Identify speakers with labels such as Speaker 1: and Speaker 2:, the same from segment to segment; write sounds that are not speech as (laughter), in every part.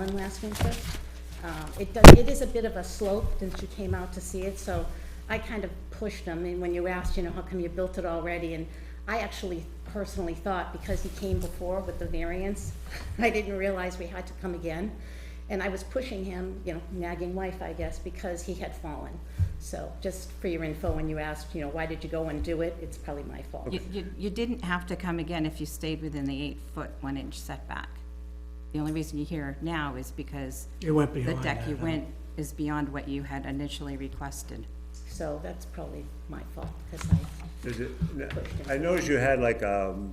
Speaker 1: on last winter. Um, It does, it is a bit of a slope since you came out to see it, so I kind of pushed them, and when you asked, you know, how come you built it already, and I actually personally thought, because he came before with the variance, (laughs) I didn't realize we had to come again, and I was pushing him, you know, nagging wife, I guess, because he had fallen. So, just for your info, when you asked, you know, why did you go and do it, it's probably my fault.
Speaker 2: You, you, you didn't have to come again if you stayed within the eight-foot, one-inch setback. The only reason you're here now is because
Speaker 3: It went
Speaker 2: the
Speaker 3: beyond
Speaker 2: deck
Speaker 3: that,
Speaker 2: you
Speaker 3: huh?
Speaker 2: went is beyond what you had initially requested.
Speaker 1: So that's probably my fault, because I,
Speaker 4: Is it, I noticed you had like, um,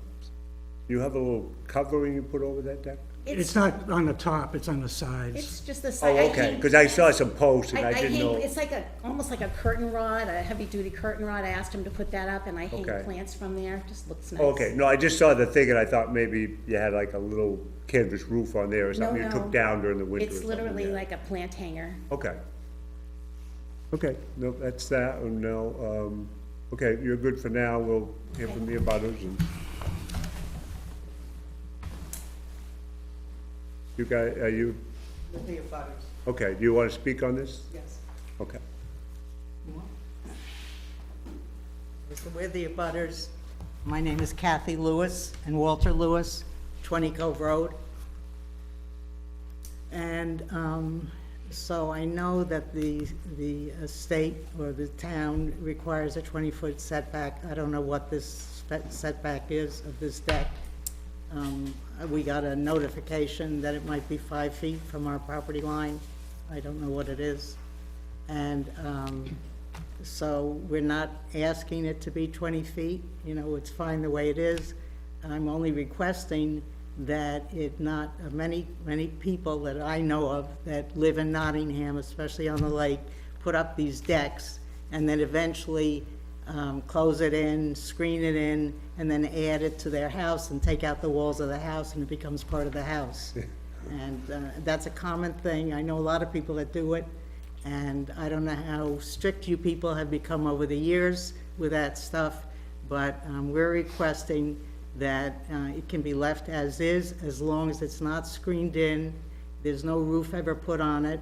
Speaker 4: you have a little covering you put over that deck?
Speaker 3: It's
Speaker 1: it's,
Speaker 3: not on the top, it's on the sides.
Speaker 1: it's just the
Speaker 4: Oh,
Speaker 1: side. I
Speaker 4: okay,
Speaker 1: hang-
Speaker 4: because I saw some posts and
Speaker 1: I, I
Speaker 4: I didn't
Speaker 1: hang,
Speaker 4: know.
Speaker 1: it's like a, almost like a curtain rod, a heavy-duty curtain rod, I asked him to put that up, and I hang
Speaker 4: Okay.
Speaker 1: plants from there, just looks nice.
Speaker 4: Okay, no, I just saw the thing and I thought maybe you had like a little canvas roof on there or
Speaker 1: No,
Speaker 4: something you
Speaker 1: no.
Speaker 4: took down during the winter or
Speaker 1: It's
Speaker 4: something,
Speaker 1: literally
Speaker 4: yeah.
Speaker 1: like a plant hanger.
Speaker 4: Okay. Okay, no, that's that, and now, um, okay, you're good for now, we'll hear from the abutters and. You guys, are you,
Speaker 5: With the abutters,
Speaker 4: okay, do you wanna speak on this?
Speaker 5: yes.
Speaker 4: Okay,
Speaker 5: So we're the abutters. My name is Kathy Lewis and Walter Lewis, 20 Cove Road. And um, so I know that the, the estate or the town requires a 20-foot setback. I don't know what this set- setback is of this deck. Um, We got a notification that it might be five feet from our property line. I don't know what it is. And um, so we're not asking it to be 20 feet, you know, it's fine the way it is. I'm only requesting that it not, uh, many, many people that I know of that live in Nottingham, especially on the lake, put up these decks and then eventually um, close it in, screen it in, and then add it to their house and take out the walls of the house and it becomes part of the house. And uh, that's a common thing. I know a lot of people that do it. And I don't know how strict you people have become over the years with that stuff, but um, we're requesting that uh, it can be left as is, as long as it's not screened in, there's no roof ever put on it,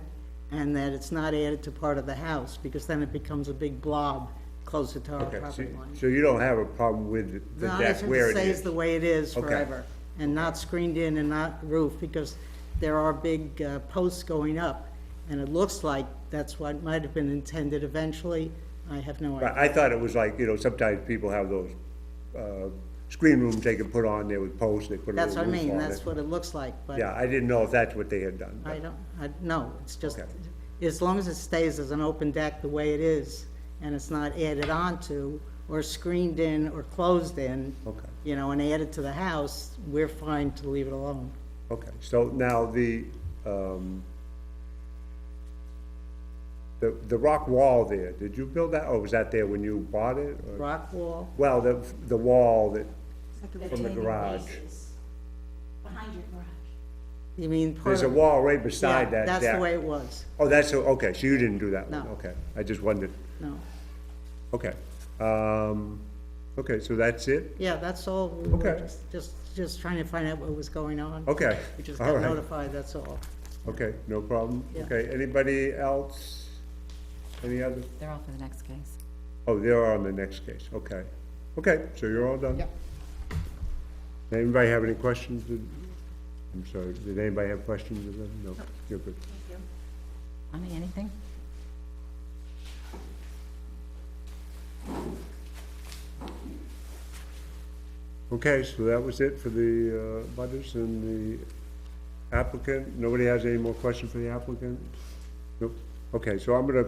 Speaker 5: and that it's not added to part of the house, because then it becomes a big blob closer to our
Speaker 4: okay, so,
Speaker 5: Oh, property line.
Speaker 4: so you don't have a problem with the
Speaker 5: No, I
Speaker 4: deck
Speaker 5: think
Speaker 4: where
Speaker 5: it
Speaker 4: it
Speaker 5: stays
Speaker 4: is?
Speaker 5: the way it is
Speaker 4: Okay.
Speaker 5: forever, and not screened in and not roofed, because there are big uh, posts going up, and it looks like that's what might have been intended eventually, I have no
Speaker 4: But
Speaker 5: idea.
Speaker 4: I thought it was like, you know, sometimes people have those, uh, screen rooms they can put on there with posts, they put a
Speaker 5: That's
Speaker 4: little
Speaker 5: what I
Speaker 4: roof
Speaker 5: mean,
Speaker 4: on
Speaker 5: that's
Speaker 4: it.
Speaker 5: what it looks like,
Speaker 4: Yeah,
Speaker 5: but
Speaker 4: I didn't know if that's what they had done. but-
Speaker 5: I don't, I, no, it's just,
Speaker 4: Okay.
Speaker 5: as long as it stays as an open deck the way it is, and it's not added onto, or screened in, or closed in,
Speaker 4: Okay.
Speaker 5: you know, and added to the house, we're fine to leave it alone.
Speaker 4: Okay, so now the, um, the, the rock wall there, did you build that, or was that there when you bought it? or-
Speaker 5: Rock wall,
Speaker 4: Well, the, the wall that, from the
Speaker 1: Retaining
Speaker 4: garage.
Speaker 1: bases Behind your garage.
Speaker 5: you mean part
Speaker 4: there's a
Speaker 5: of-
Speaker 4: wall right
Speaker 5: Yeah,
Speaker 4: beside that deck.
Speaker 5: that's the way it was,
Speaker 4: Oh, that's, the- okay, so you didn't do that one,
Speaker 5: No.
Speaker 4: okay. I just wondered,
Speaker 5: no.
Speaker 4: okay. Um, okay, so that's it?
Speaker 5: Yeah, that's all, we were
Speaker 4: Okay.
Speaker 5: just- just, just trying to find out what was going on.
Speaker 4: Okay,
Speaker 5: We just
Speaker 4: all
Speaker 5: got
Speaker 4: right.
Speaker 5: notified, that's all.
Speaker 4: Okay, no problem.
Speaker 5: Yeah.
Speaker 4: Okay, anybody else? Any other?
Speaker 2: They're all for the next case.
Speaker 4: Oh, they are on the next case, okay. Okay, so you're all done?
Speaker 5: Yep.
Speaker 4: Anybody have any questions? Did- I'm sorry, did anybody have questions of them? No, you're good.
Speaker 2: Bonnie, anything?
Speaker 4: Okay, so that was it for the uh, butters and the applicant. Nobody has any more questions for the applicant? Nope. Okay, so I'm gonna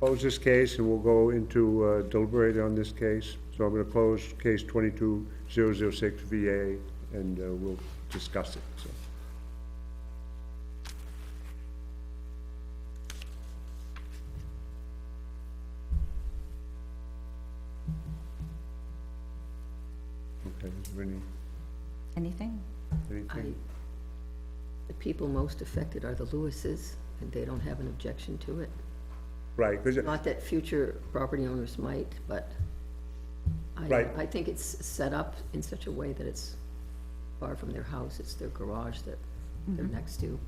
Speaker 4: close this case and we'll go into uh, deliberate on this case. So I'm gonna close case twenty-two zero zero six VA and uh, we'll discuss it, so. Okay, is there any,
Speaker 2: Anything?
Speaker 4: anything?
Speaker 6: The people most affected are the Lewises, and they don't have an objection to it.
Speaker 4: Right, 'cause it-
Speaker 6: Not that future property owners might, but I,
Speaker 4: Right.
Speaker 6: I think it's set up in such a way that it's far from their house, it's their garage that they're next to.